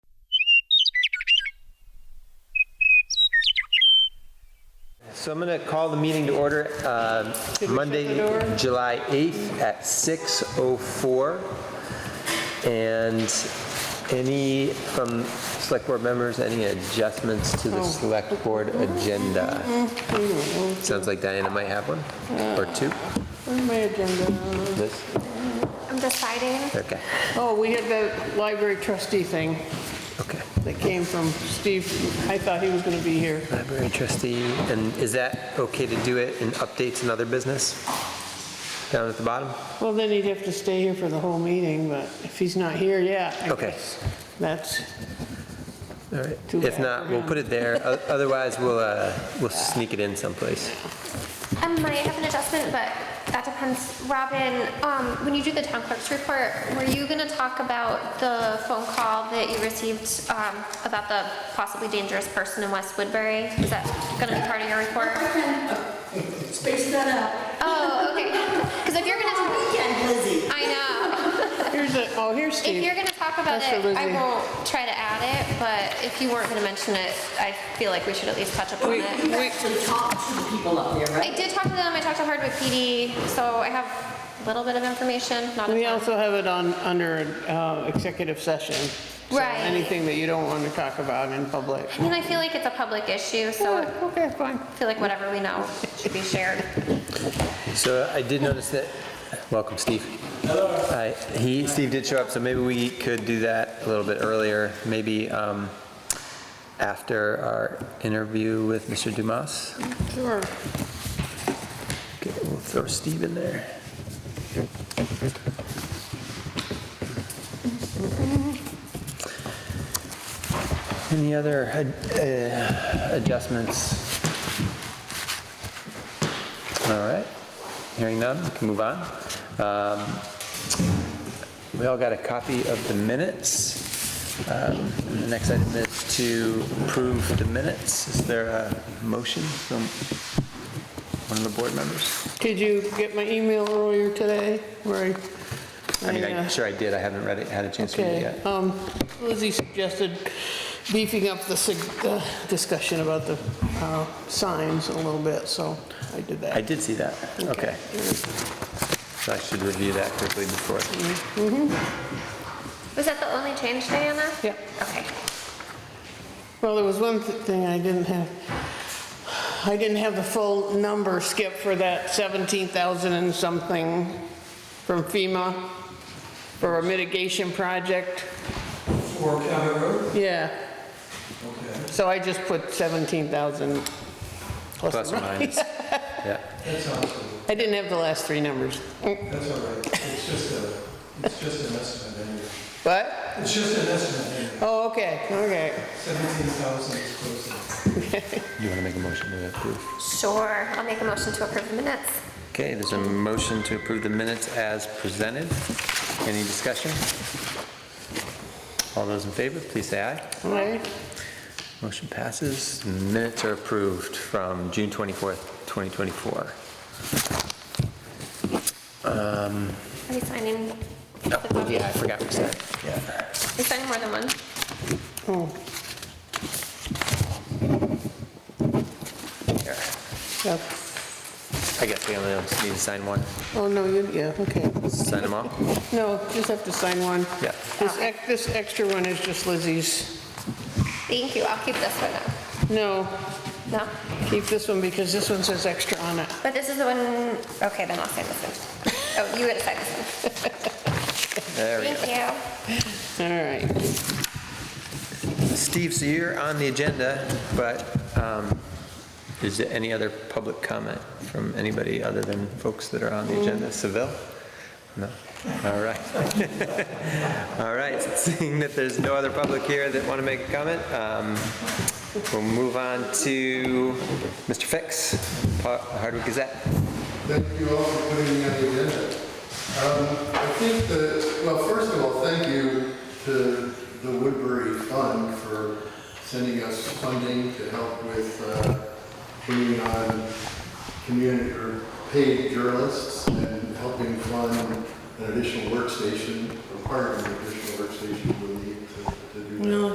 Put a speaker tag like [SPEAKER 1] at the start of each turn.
[SPEAKER 1] So I'm going to call the meeting to order uh, Monday, July 8th at 6:04. And any from select board members, any adjustments to the select board agenda? Sounds like Diana might have one, or two.
[SPEAKER 2] Where's my agenda?
[SPEAKER 1] Liz?
[SPEAKER 3] I'm deciding.
[SPEAKER 1] Okay,
[SPEAKER 2] Oh, we had that library trustee thing
[SPEAKER 1] okay.
[SPEAKER 2] that came from Steve. I thought he was going to be here.
[SPEAKER 1] Library trustee, and is that okay to do it in updates and other business? Down at the bottom?
[SPEAKER 2] Well, then he'd have to stay here for the whole meeting, but if he's not here, yeah. I
[SPEAKER 1] Okay.
[SPEAKER 2] guess That's,
[SPEAKER 1] All right.
[SPEAKER 2] Too
[SPEAKER 1] If
[SPEAKER 2] bad
[SPEAKER 1] not,
[SPEAKER 2] for
[SPEAKER 1] we'll
[SPEAKER 2] him.
[SPEAKER 1] put it there. O- Otherwise, we'll, uh, we'll sneak it in someplace.
[SPEAKER 3] I might have an adjustment, but that depends. Robin, um, when you do the town clerk's report, were you gonna talk about the phone call that you received, um, about the possibly dangerous person in West Woodbury? Is that gonna be part of your report?
[SPEAKER 4] Space that out.
[SPEAKER 3] Oh, okay. Cause if you're gonna,
[SPEAKER 4] Weekend, Lizzie.
[SPEAKER 3] I know.
[SPEAKER 2] here's the, oh, here's
[SPEAKER 3] If you're
[SPEAKER 2] Steve.
[SPEAKER 3] gonna talk about
[SPEAKER 2] That's for
[SPEAKER 3] it, I
[SPEAKER 2] Lizzie.
[SPEAKER 3] won't try to add it, but if you weren't gonna mention it, I feel like we should at least touch upon
[SPEAKER 2] We-
[SPEAKER 3] it.
[SPEAKER 4] You actually talk to the people up there,
[SPEAKER 3] I
[SPEAKER 4] right?
[SPEAKER 3] did talk to them, I talked to Hardwick PD, so I have a little bit of information, not a
[SPEAKER 2] We
[SPEAKER 3] ton.
[SPEAKER 2] also have it on, under uh, executive session. So
[SPEAKER 3] Right.
[SPEAKER 2] Anything that you don't want to talk about in public.
[SPEAKER 3] I mean, I feel like it's a public issue, so
[SPEAKER 2] Yeah,
[SPEAKER 3] I
[SPEAKER 2] Okay, fine.
[SPEAKER 3] feel like whatever we know should be shared.
[SPEAKER 1] So I did notice that, welcome, Steve. Hello. He, Steve did show up, so maybe we could do that a little bit earlier, maybe um, after our interview with Mr. Dumas.
[SPEAKER 2] Sure.
[SPEAKER 1] Okay, we'll throw Steve in there. Any other ad- uh, adjustments? All right, hearing none, we can move on. Um, We all got a copy of the minutes. Um, The next item is to approve the minutes. Is there a motion from one of the board members?
[SPEAKER 2] Did you get my email earlier today where I?
[SPEAKER 1] I mean,
[SPEAKER 2] I, uh,
[SPEAKER 1] I'm sure I did, I haven't read it, had a chance to read it
[SPEAKER 2] Okay,
[SPEAKER 1] yet.
[SPEAKER 2] um, Lizzie suggested beefing up the sig- uh, discussion about the uh, signs a little bit, so I did
[SPEAKER 1] I
[SPEAKER 2] that.
[SPEAKER 1] did see that, okay. So I should review that quickly before.
[SPEAKER 3] Was that the only change, Diana?
[SPEAKER 2] Yeah,
[SPEAKER 3] Okay.
[SPEAKER 2] well, there was one th- thing I didn't have, I didn't have the full number, Skip, for that 17,000 and something from FEMA for a mitigation project.
[SPEAKER 5] For County Road?
[SPEAKER 2] Yeah,
[SPEAKER 5] Okay.
[SPEAKER 2] so I just put 17,000 plus
[SPEAKER 1] Plus or minus. Yeah,
[SPEAKER 5] That sounds good.
[SPEAKER 2] I didn't have the last three numbers. Mm.
[SPEAKER 5] That's all right. It's just a, it's just an estimate anyway.
[SPEAKER 2] What?
[SPEAKER 5] It's just an estimate anyway.
[SPEAKER 2] Oh, okay, okay.
[SPEAKER 5] 17,000 is close enough.
[SPEAKER 1] you want to make a motion to approve?
[SPEAKER 3] Sure, I'll make a motion to approve the minutes.
[SPEAKER 1] Okay, there's a motion to approve the minutes as presented. Any discussion? All those in favor, please say aye.
[SPEAKER 2] All right.
[SPEAKER 1] Motion passes. Minutes are approved from June 24th, 2024.
[SPEAKER 3] Are we signing? the
[SPEAKER 1] Oh,
[SPEAKER 3] copy?
[SPEAKER 1] Yeah, I forgot we said, yeah.
[SPEAKER 3] We signing more than one?
[SPEAKER 2] Oh,
[SPEAKER 1] Here.
[SPEAKER 2] Yep.
[SPEAKER 1] I guess we only need to sign one.
[SPEAKER 2] Oh, no, you, yeah, okay.
[SPEAKER 1] Sign them all?
[SPEAKER 2] No, just have to sign one.
[SPEAKER 1] Yeah.
[SPEAKER 2] This, ex- this extra one is just Lizzie's.
[SPEAKER 3] Thank you, I'll keep this one up.
[SPEAKER 2] No,
[SPEAKER 3] No?
[SPEAKER 2] keep this one because this one says extra on it.
[SPEAKER 3] But this is the one, okay, then I'll sign this one. Oh, you gotta sign this one.
[SPEAKER 1] There we go.
[SPEAKER 3] Thank you.
[SPEAKER 2] All right.
[SPEAKER 1] Steve, so you're on the agenda, but um, is there any other public comment from anybody other than folks that are on the agenda? Seville? No? All right. All right, seeing that there's no other public here that want to make a comment, um, we'll move on to Mr. Fix, Pa- Hardwick Gazette.
[SPEAKER 6] Thank you all for putting me on the agenda. Um, I think that, well, first of all, thank you to the Woodbury Fund for sending us funding to help with uh, bringing on community or paid journalists and helping fund an additional workstation, requiring an additional workstation we need to to do that.